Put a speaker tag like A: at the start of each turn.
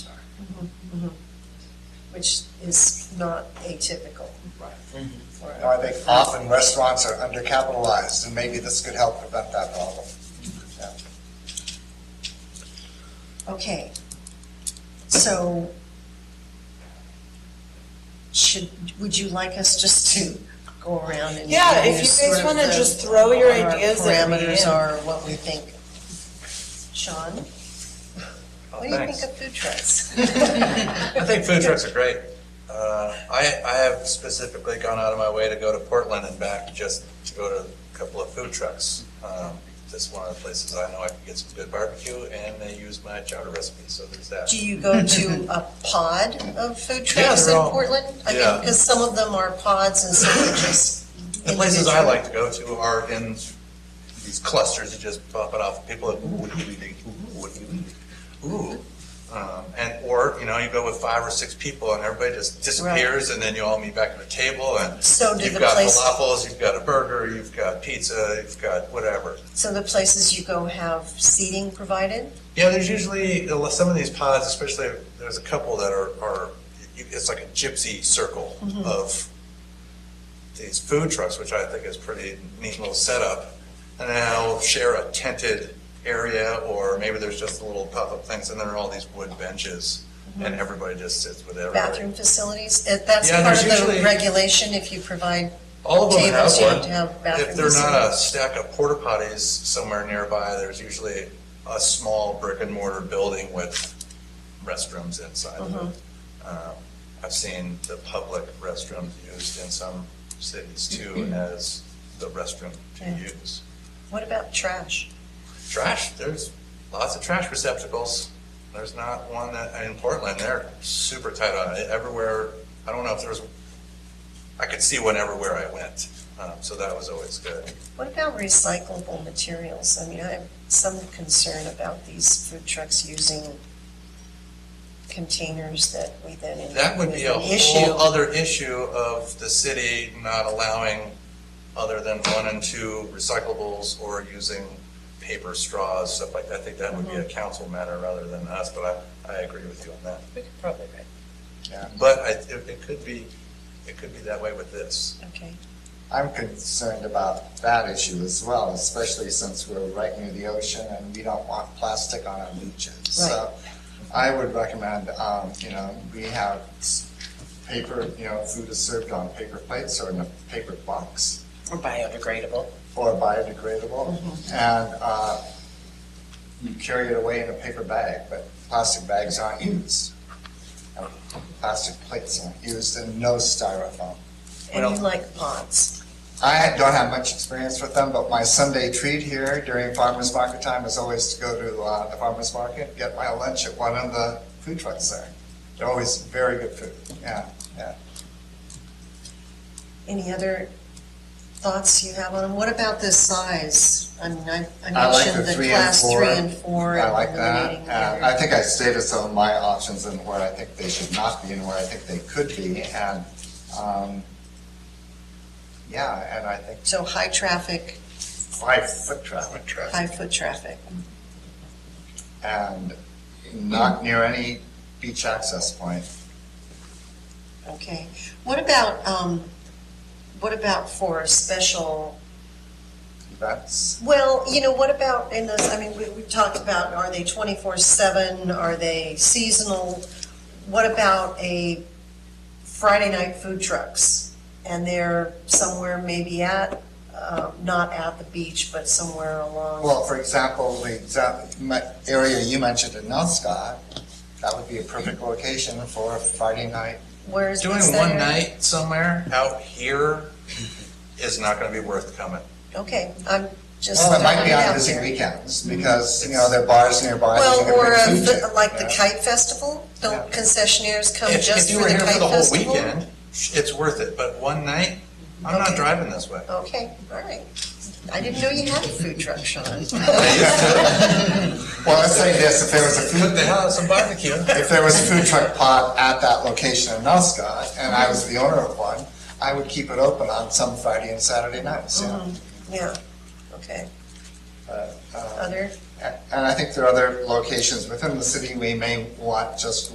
A: Mm-hmm, which is not atypical
B: Right.
A: for
C: No, I
A: a
C: think often restaurants are undercapitalized, and maybe this could help prevent that problem.
A: Okay. So should, would you like us just to go around and?
D: Yeah, if
A: use
D: you guys
A: sort of
D: wanna
A: the-
D: just throw your
A: what our
D: ideas at me
A: Parameters
D: and-
A: are what we think. Sean? What do you
E: thanks.
A: think of food trucks?
E: I think food trucks are great. Uh, I, I have specifically gone out of my way to go to Portland and back just to go to a couple of food trucks. Um, This is one of the places I know I can get some good barbecue, and they use my chowder recipe, so there's that.
A: Do you go to a pod of food
E: Yeah,
A: trucks in
E: they're all-
A: Portland? I mean,
E: yeah.
A: because some of them are pods and some are just.
E: The places I
A: individual.
E: like to go to are in these clusters that just pop it off, people are, ooh, what do we do? Ooh, what do we do? Ooh. Um, And, or, you know, you go with five or six people, and everybody just disappears, and then you all meet back at the table, and
A: So do
E: You've
A: the
E: got
A: places.
E: falafels, you've got a burger, you've got pizza, you've got whatever.
A: So the places you go have seating provided?
E: Yeah, there's usually, some of these pods, especially, there's a couple that are, are, it's like a gypsy circle of these food trucks, which I think is pretty neat little setup. And they'll share a tented area, or maybe there's just little pop-up things, and there are all these wood benches, and everybody just sits with everybody.
A: Bathroom facilities? If That's
E: Yeah,
A: part of
E: there's
A: the
E: usually-
A: regulation, if you provide,
E: All of them have
A: Tables, you have
E: one.
A: to have
E: If
A: bathrooms.
E: they're not a stack of porta potties somewhere nearby, there's usually a small brick and mortar building with restrooms inside of it.
A: Mm-hmm.
E: Um, I've seen the public restrooms used in some cities too as the restroom to
A: Yeah.
E: use.
A: what about trash?
E: Trash, there's lots of trash receptacles. There's not one that, in Portland, they're super tight on it. Everywhere, I don't know if there's, I could see one everywhere I went. Um, So that was always good.
A: What about recyclable materials? I mean, I have some concern about these food trucks using containers that we then. end up
E: That would be a
A: with an issue.
E: whole other issue of the city not allowing other than one and two recyclables or using paper straws, stuff like that. I think that would be
A: Mm-hmm.
E: a council matter rather than us, but I, I agree with you on that.
D: We could probably write.
C: Yeah.
E: But I, it, it could be, it could be that way with this.
A: Okay,
C: I'm concerned about that issue as well, especially since we're right near the ocean and we don't want plastic on our beaches. So I would recommend, um, you know, we have s- paper, you know, food is served on paper plates or in a paper box.
D: Or biodegradable. Mm-hmm.
C: or biodegradable, and uh, you carry it away in a paper bag, but plastic bags aren't used. And Plastic plates aren't used, and no styrofoam.
A: and
E: Well-
A: you like pods.
C: I don't have much experience with them, but my Sunday treat here during farmer's market time is always to go to uh, the farmer's market, get my lunch at one of the food trucks there. They're always very good food, yeah, yeah.
A: Any other thoughts you have on them? What about the size? I mean, I I
C: I like
A: mentioned
C: the
A: the
C: three and
A: class
C: four.
A: three and four.
C: I
A: and
C: like that.
A: eliminating the
C: And
A: other.
C: I think I stated some of my options and where I think they should not be and where I think they could be. And, um, yeah, and I think
A: So high traffic,
C: five foot traffic,
A: high foot traffic.
C: and not near any beach access point.
A: Okay, what about, um, what about for a special,
C: That's,
A: well, you know, what about in this, I mean, we, we talked about, are they twenty-four seven, are they seasonal? What about a Friday night food trucks? And they're somewhere maybe at, uh, not at the beach, but somewhere along,
C: well, for example, the exact my area you mentioned in Nelscott, that would be a perfect location for a Friday night.
A: where is
E: Doing
A: what's that
E: one
A: area?
E: night somewhere out here is not gonna be worth coming.
A: Okay, I'm just.
C: Well, it might be
A: throwing
C: on
A: out
C: busy
A: there.
C: weekends because, you know, there are bars nearby. that you
A: Well,
C: can
A: or
C: bring
A: a
C: food
A: fi-
C: to.
A: like the
C: Yeah.
A: kite festival, don't
C: Yeah.
A: concessionaires come
E: If-
A: Oh, just for the kite
E: If you were here for the whole
A: festival?
E: weekend, it's worth it, but one night, I'm not
A: Okay.
E: driving this way.
A: Okay, all right. I didn't know you had a food truck, Sean.
C: Well, let's say this, if there was a
E: Cook the
C: food,
E: hell out of some barbecue.
C: if there was a food truck pot at that location in Nelscott, and I was the owner of one, I would keep it open on some Friday and Saturday nights, you know.
A: Mm-hmm. Yeah, okay.
C: But, uh,
A: Other
C: And I think there are other locations within the city we may want just